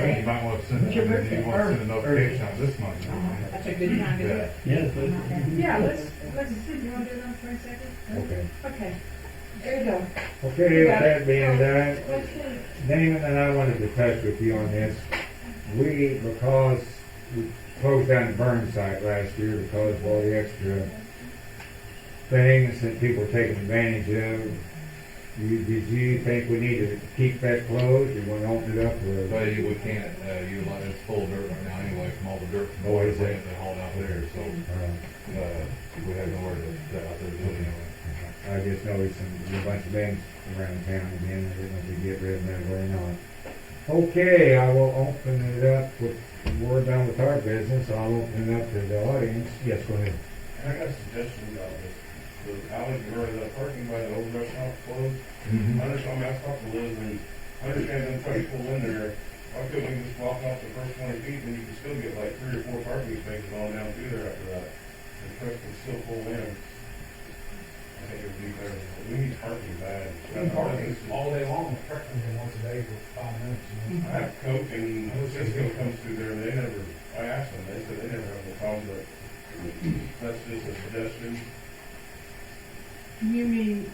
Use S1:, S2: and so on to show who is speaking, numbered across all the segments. S1: up soon, and then he wants an update on this month.
S2: That's a good time to do it.
S3: Yes, but-
S2: Yeah, let's, let's, do you wanna do it on the twenty-second?
S4: Okay.
S2: Okay, there you go.
S4: Okay, with that being done,
S2: Let's do-
S4: Damon and I wanted to touch with you on this. We, because we closed down the burn site last year because of all the extra things that people were taking advantage of, you, did you think we need to keep that closed, you wanna open it up, or?
S1: But you, we can't, uh, utilize, it's full of dirt right now anyway, from all the dirt from
S4: Oh,
S1: the
S4: is it?
S1: plant they hauled out there, so,
S4: Uh,
S1: uh, we have nowhere to, to out there do it anyway.
S4: Uh, I just noticed some, a bunch of banks around town again, I didn't know if they get rid of that or not. Okay, I will open it up with, we're done with our business, I'll open it up to the audience. Yes, go ahead.
S5: I got a suggestion about this. The alley where the parking by the old restaurant closed,
S1: Mm-hmm.
S5: I just want to ask Dr. Liz, and I understand them trying to pull in there. Why couldn't we just block off the first twenty feet, and you can still get like three or four parking spaces on down through there after that? And trucks can still pull in. I think it would be better. We need parking bad.
S6: Been parking all day long, the truck comes in once a day for five minutes. and
S5: I have Coke and Cisco comes through there, and they never, I asked them, they said they never have a problem, but that's just a suggestion.
S2: You mean,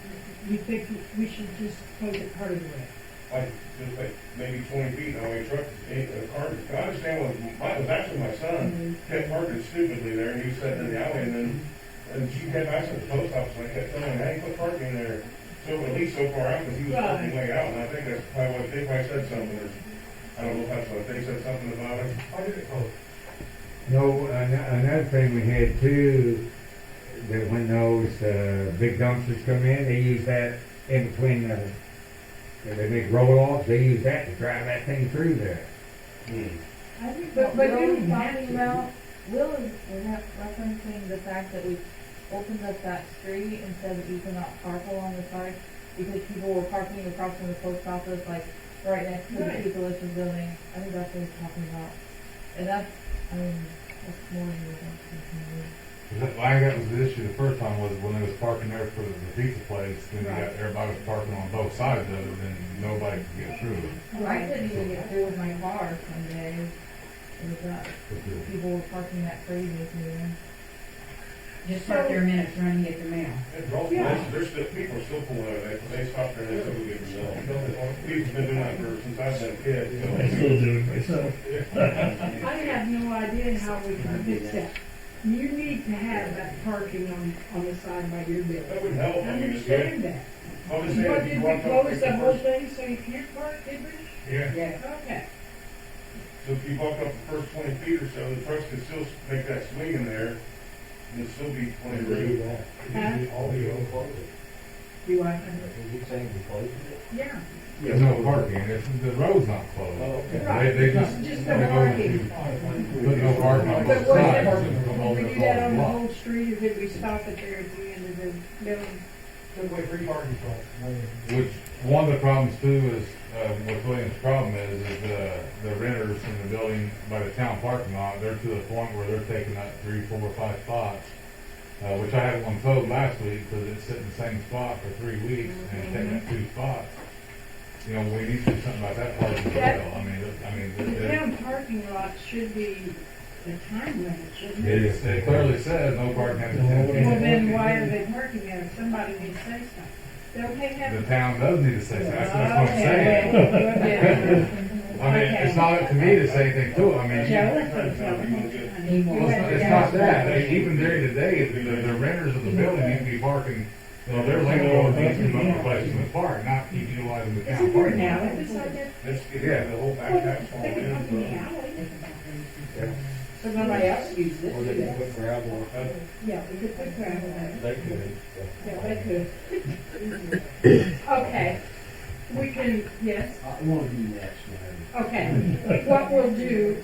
S2: you think we should just close it part of the way?
S5: like, just like maybe twenty feet, and my truck, a car, I understand what, my, it was actually my son, kept parking stupidly there, and he was sitting in the alley, and then, and she kept asking the post office, and I kept telling him, hey, quit parking there, so at least so far out, because he was parking way out, and I think that's probably what, they probably said something, or, I don't know if that's what, they said something about it.
S6: Why did it close?
S4: No, an- another thing we had too, that when those, uh, big dumpsters come in, they use that in between the, they make roll-offs, they use that to drive that thing through there.
S5: Hmm.
S7: I think
S2: But-
S7: what
S2: but
S7: Will
S2: you
S7: is
S2: have to.
S7: talking about, Will is is that referencing the fact that we opened up that street and said that you cannot park along the side because people were parking across from the post office, like right next to the
S2: Right.
S7: people listed building. I think that's what he's talking about. And that's, I mean, that's more than what I'm
S1: 'Cause that- I think that was the issue the first time was when they was parking there for the pizza place, then they got, everybody was parking on both sides of it, and nobody could get through it.
S7: thinking. I couldn't even get through with my car some days. It was that,
S1: But the-
S7: people were parking that crazy through there.
S8: Just park their minutes, run and get the mail.
S5: It brought,
S2: Yeah.
S5: there's, there's still, people are still pulling out, they, they stopped there, and they said, we get results. We've been doing that for, since I've been a kid, so.
S3: I still do it myself.
S2: I have no idea how we can fix that. You need to have that parking on, on the side by your building.
S5: That would help,
S2: I
S1: Oh,
S5: I mean, it's good.
S2: understand that.
S5: What
S2: But did we close the whole thing so you can't park, did we?
S5: Yeah,
S8: Yeah.
S2: Okay.
S5: so if you walk up the first twenty feet or so, the trucks could still make that swing in there, and it'd still be plenty of room.
S2: Huh?
S6: All the old closing.
S2: You want,
S6: You saying we closed it?
S2: yeah.
S1: There's no parking, it's, the road's not
S6: Oh,
S1: closed. They, they just.
S2: Just
S1: they
S2: no
S1: go
S2: parking.
S1: to- Put no parking on both
S2: But what if,
S1: sides. and come
S2: if
S1: over
S2: we
S1: the
S2: do that on the
S1: block.
S2: whole street, or did we stop it there at the end of the building?
S6: Took away three parking spots. one in-
S1: Which, one of the problems too is, uh, what William's problem is, is, uh, the renters in the building by the town parking lot, they're to the point where they're taking up three, four, or five spots. Uh, which I had one towed last week, cause it's sitting in the same spot for three weeks and it's taking up two spots. You know, we need to do something about that part as well, I mean, it- I mean, it-
S2: The
S1: it-
S2: town parking lot should be the time limit, shouldn't
S1: it
S2: it?
S1: is- it clearly says no parking after ten p.m.
S2: Well, then why are they parking there? Somebody needs to say something. Don't they
S1: The
S2: have?
S1: town does need to say something, that's what
S2: Oh,
S1: I'm saying.
S2: Okay.
S1: I mean, it's not up to me to say anything to it, I mean,
S2: Yeah, let's put it down.
S8: He won't.
S1: Well, it's not, it's not that, I mean, even during the day, the, the renters of the building need to be parking, you know, their landlord needs to be replacing the park, not keep utilizing the
S2: Is it
S1: town
S2: there
S1: parking.
S2: now?
S1: lot.
S2: Is this like that?
S5: Let's get rid of the whole back half all
S2: They can come in the
S5: in. uh,
S2: alley.
S4: Yeah.
S2: So nobody else uses
S6: Or they could
S2: it.
S6: put gravel,
S5: Uh,
S2: Yeah, we could put gravel there.
S6: they could.
S2: Yeah, they could. Okay. We can, yes.
S6: I want to do next, man.
S2: Okay, what we'll do,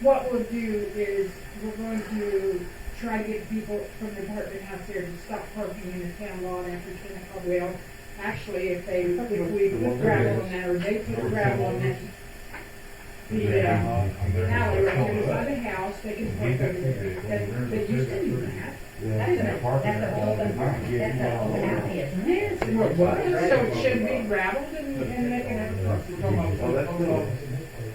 S2: what we'll do is, we're going to try to get people from the apartment house there to stop parking in the town lot after ten o'clock. Well, actually, if they, if we put gravel on that, or they put gravel on that, the uh,
S1: I'm there.
S2: alley right there by the house, they can park over there. That, that used to be that.
S1: They're parking there all the time.
S8: That's a whole alley, isn't it?
S2: Yes, it was. So it should be gravelled and, and they can have a parking.
S6: Well, that's good.